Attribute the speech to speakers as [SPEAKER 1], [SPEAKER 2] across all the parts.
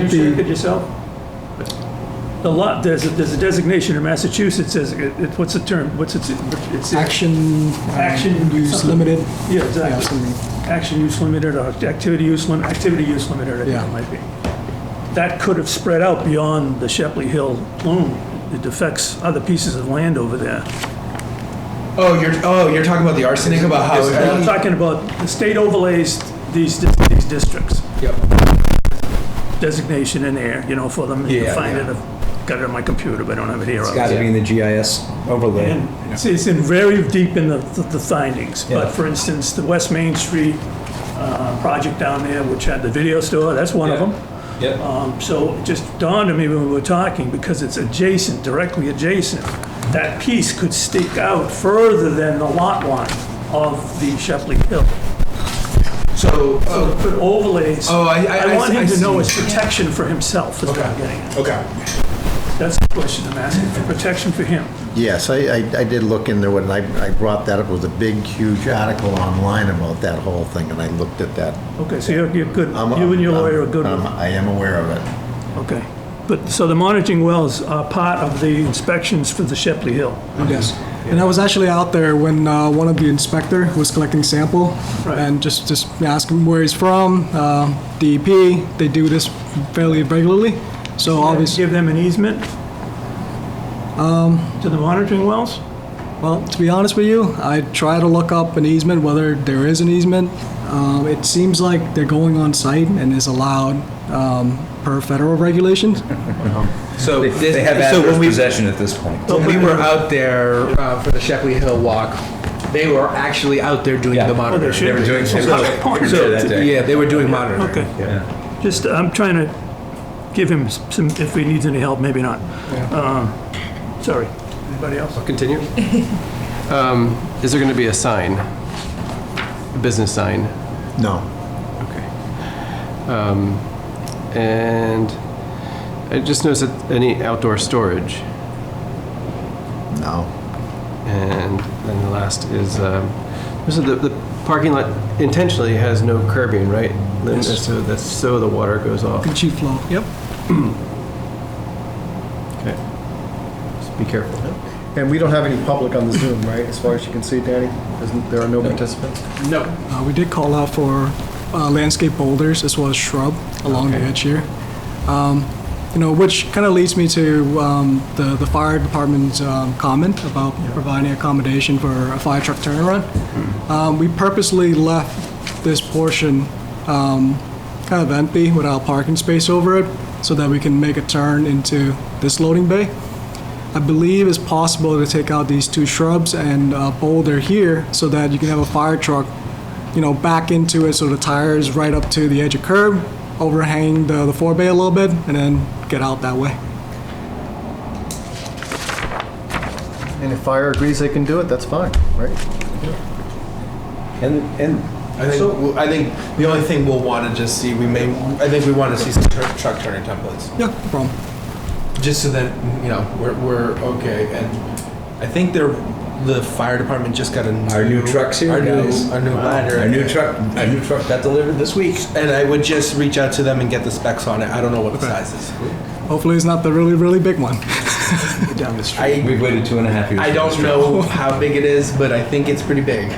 [SPEAKER 1] You sure could yourself? The lot, there's a, there's a designation in Massachusetts, as, it, it- what's the term, what's its, it's,
[SPEAKER 2] Action. uh,
[SPEAKER 1] Action.
[SPEAKER 2] Use limited.
[SPEAKER 1] yeah,
[SPEAKER 2] Yeah,
[SPEAKER 1] exactly.
[SPEAKER 2] something.
[SPEAKER 1] Action use limited or activity use limit, activity use limited, I think
[SPEAKER 2] Yeah.
[SPEAKER 1] it might be. That could have spread out beyond the Shepley Hill plume. It affects other pieces of land over there.
[SPEAKER 3] Oh, you're oh, you're talking about the arsenic about how.
[SPEAKER 1] Now, I'm talking about the state overlays these, dis- these districts,
[SPEAKER 3] Yep.
[SPEAKER 1] designation in there, you know, for them. and
[SPEAKER 3] Yeah,
[SPEAKER 1] Find it,
[SPEAKER 3] yeah.
[SPEAKER 1] I've got it on my computer, but I don't have it here.
[SPEAKER 4] It's got to be in the GIS overlay.
[SPEAKER 1] And it's, it's in very deep in the, the findings, but for instance, the West Main Street, uh, project down there, which had the video store, that's one of
[SPEAKER 3] Yeah.
[SPEAKER 1] them.
[SPEAKER 3] Yep.
[SPEAKER 1] Um, so it just dawned on me when we were talking, because it's adjacent, directly adjacent, that piece could stick out further than the lot line of the Shepley Hill. So
[SPEAKER 3] so oh,
[SPEAKER 1] put overlays.
[SPEAKER 3] Oh, I- I-
[SPEAKER 1] want
[SPEAKER 3] I-
[SPEAKER 1] him
[SPEAKER 3] I
[SPEAKER 1] to know
[SPEAKER 3] see.
[SPEAKER 1] it's protection for himself, is what I'm getting at.
[SPEAKER 3] okay.
[SPEAKER 1] That's the question I'm asking, for protection for him.
[SPEAKER 5] Yes, I, I I did look into it, and I, I brought that up, it was a big, huge article online about that whole thing, and I looked at that.
[SPEAKER 1] Okay, so you're, you're good,
[SPEAKER 5] I'm-
[SPEAKER 1] you and your
[SPEAKER 5] I'm-
[SPEAKER 1] lawyer are good with
[SPEAKER 5] I'm- I am aware of it.
[SPEAKER 1] Okay. But, so the monitoring wells are part of the inspections for the Shepley Hill?
[SPEAKER 2] Yes. And I was actually out there when uh, one of the inspector was collecting sample
[SPEAKER 1] Right.
[SPEAKER 2] and just, just ask him where he's from, uh, DEP, they do this fairly regularly. So obviously,
[SPEAKER 1] Give them an easement? To the monitoring wells?
[SPEAKER 2] well, to be honest with you, I try to look up an easement, whether there is an easement. Um, It seems like they're going on site and is allowed um, per federal regulations.
[SPEAKER 3] So
[SPEAKER 4] They
[SPEAKER 3] this,
[SPEAKER 4] they have
[SPEAKER 3] so
[SPEAKER 4] adverse
[SPEAKER 3] when we
[SPEAKER 4] possession at this point.
[SPEAKER 3] when we were out there uh, for the Shepley Hill walk, they were actually out there doing
[SPEAKER 4] Yeah.
[SPEAKER 3] the
[SPEAKER 4] Oh, they
[SPEAKER 3] monitoring.
[SPEAKER 1] should be.
[SPEAKER 4] doing some-
[SPEAKER 1] So-
[SPEAKER 4] So- that day.
[SPEAKER 3] yeah, they were doing monitoring.
[SPEAKER 1] Okay. Just, I'm trying to give him some, if he needs any help, maybe not. Um, Sorry. Anybody else?
[SPEAKER 6] Continue. Um, Is there going to be a sign? A business sign?
[SPEAKER 5] No.
[SPEAKER 6] Okay. Um, And I just noticed that any outdoor storage,
[SPEAKER 5] No.
[SPEAKER 6] and then the last is, um, so the the parking lot intentionally has no curbing, right? Lynn? So that's, so the water goes off.
[SPEAKER 2] Chief flow. Yep.
[SPEAKER 6] Okay. Just Be careful.
[SPEAKER 7] And we don't have any public on the Zoom, right? As far as you can see, Danny? Isn't- There are no participants?
[SPEAKER 6] No.
[SPEAKER 2] Uh, We did call out for uh, landscape boulders as well as shrub along the edge here. Um, You know, which kind of leads me to um, the the fire department's um, comment about providing accommodation for a fire truck turnaround. Um, We purposely left this portion um, kind of empty without parking space over it so that we can make a turn into this loading bay. I believe it's possible to take out these two shrubs and uh, boulder here so that you can have a fire truck, you know, back into it so the tire is right up to the edge of curb, overhang the, the forebay a little bit, and then get out that way.
[SPEAKER 7] And if fire agrees they can do it, that's fine, right?
[SPEAKER 4] And, and
[SPEAKER 3] I think we'll- I think the only thing we'll want to just see we may I think we want to see some tur truck turning templates
[SPEAKER 2] Yeah, no problem.
[SPEAKER 3] just so that you know we're, we're okay and I think they're the fire department just got a new,
[SPEAKER 4] Our new trucks here,
[SPEAKER 3] our
[SPEAKER 4] guys.
[SPEAKER 3] new our new ladder
[SPEAKER 4] our new truck, our new truck got delivered this week.
[SPEAKER 3] and I would just reach out to them and get the specs on it I don't know what the size is
[SPEAKER 2] Hopefully it's not the really, really big one.
[SPEAKER 3] I
[SPEAKER 4] We've waited two and a half years.
[SPEAKER 3] I
[SPEAKER 4] for
[SPEAKER 3] don't
[SPEAKER 4] this
[SPEAKER 3] know how big it is but I think it's pretty big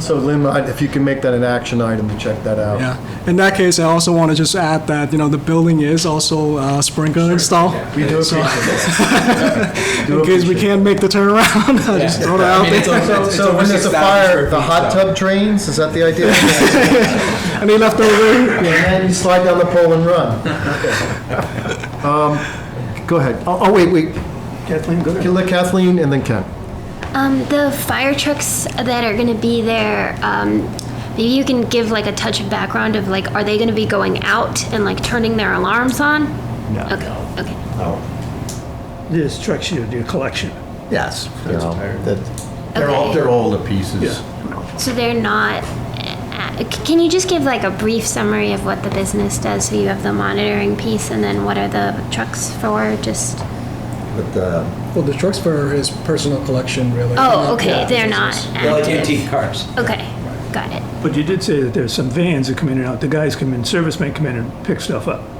[SPEAKER 7] So Lynn, I- if you can make that an action item, check that out.
[SPEAKER 2] Yeah. In that case, I also want to just add that, you know, the building is also uh, sprinkler installed.
[SPEAKER 7] We do appreciate that.
[SPEAKER 2] In case we can't make the turnaround, I just throw it out
[SPEAKER 3] I mean, it's
[SPEAKER 2] there.
[SPEAKER 3] over-
[SPEAKER 7] So
[SPEAKER 3] it's
[SPEAKER 7] so
[SPEAKER 3] over
[SPEAKER 7] when there's a
[SPEAKER 3] 6,000
[SPEAKER 7] fire,
[SPEAKER 3] square
[SPEAKER 7] the
[SPEAKER 3] feet,
[SPEAKER 7] hot
[SPEAKER 3] so-
[SPEAKER 7] tub drains, is that the idea?
[SPEAKER 2] Any leftover?
[SPEAKER 7] And then you slide down the pole and run. Um, Go ahead. Oh, oh, wait, wait.
[SPEAKER 1] Kathleen, go
[SPEAKER 7] Can
[SPEAKER 1] ahead.
[SPEAKER 7] let Kathleen and then Ken.
[SPEAKER 8] Um, the fire trucks that are gonna be there, um, maybe you can give like a touch of background of like, are they gonna be going out and like turning their alarms on? No. Okay, okay.
[SPEAKER 1] This trucks you, your collection.
[SPEAKER 5] Yes, you know, that, they're all, they're older pieces.
[SPEAKER 8] So they're not, uh, c- can you just give like a brief summary of what the business does? So you have the monitoring piece and then what are the trucks for, just?
[SPEAKER 5] But, uh,
[SPEAKER 2] Well, the truck's for his personal collection, really.
[SPEAKER 8] Oh, okay, they're not
[SPEAKER 4] They're like
[SPEAKER 8] active.
[SPEAKER 4] antique cars.
[SPEAKER 8] Okay, got it.
[SPEAKER 1] But you did say that there's some vans that come in and out. The guys come in, servicemen come in and pick stuff up.